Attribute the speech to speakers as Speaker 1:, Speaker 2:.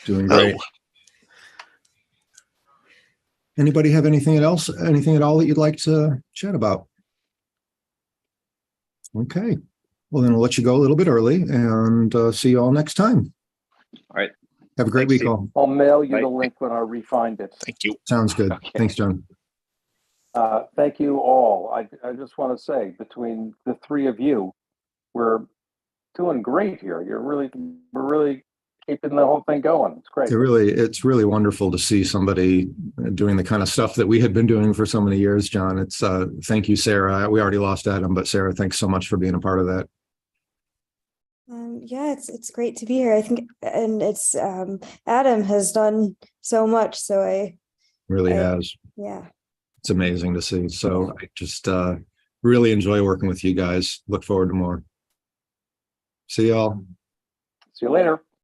Speaker 1: Doing
Speaker 2: Oh,
Speaker 1: great. Anybody have anything else, anything at all that you'd like to chat about? Okay, well then I'll let you go a little bit early and uh, see you all next time.
Speaker 2: All right.
Speaker 1: Have a great
Speaker 2: Thanks,
Speaker 1: week
Speaker 2: Steve.
Speaker 1: all.
Speaker 3: I'll mail you the
Speaker 2: Right.
Speaker 3: link when I refind it.
Speaker 2: thank you.
Speaker 1: Sounds good.
Speaker 2: Okay.
Speaker 1: Thanks, John.
Speaker 3: Uh, Thank you all. I, I just want to say, between the three of you, we're doing great here. You're really, we're really keeping the whole thing going. It's great.
Speaker 1: It really, it's really wonderful to see somebody doing the kind of stuff that we had been doing for so many years, John. It's, uh, thank you, Sarah. We already lost Adam, but Sarah, thanks so much for being a part of that.
Speaker 4: Um, yeah, it's it's great to be here. I think, and it's um, Adam has done so much. So I,
Speaker 1: Really
Speaker 4: Yeah.
Speaker 1: has.
Speaker 4: yeah,
Speaker 1: It's amazing to see. So I just uh really enjoy working with you guys. Look forward to more. See y'all.
Speaker 3: See you later.